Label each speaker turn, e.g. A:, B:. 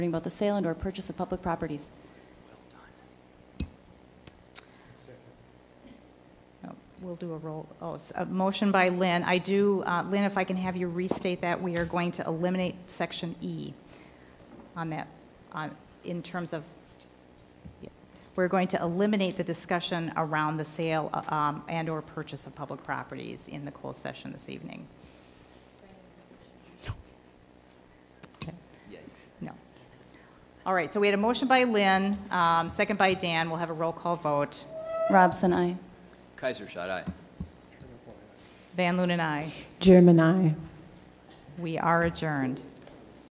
A: regarding both the sale and/or purchase of public properties.
B: No, We'll do a roll, oh, it's a motion by Lynn. I do, uh, Lynn, if I can have you restate that, we are going to eliminate section E on that, on, in terms of, yeah. we're going to eliminate the discussion around the sale uh, um, and/or purchase of public properties in the closed session this evening. Okay. No. All right, so we had a motion by Lynn, um, second by Dan. We'll have a roll call vote.
A: Robson, I.
C: Kaiser shot aye.
B: Van Loon and I.
D: German, I.
B: We are adjourned.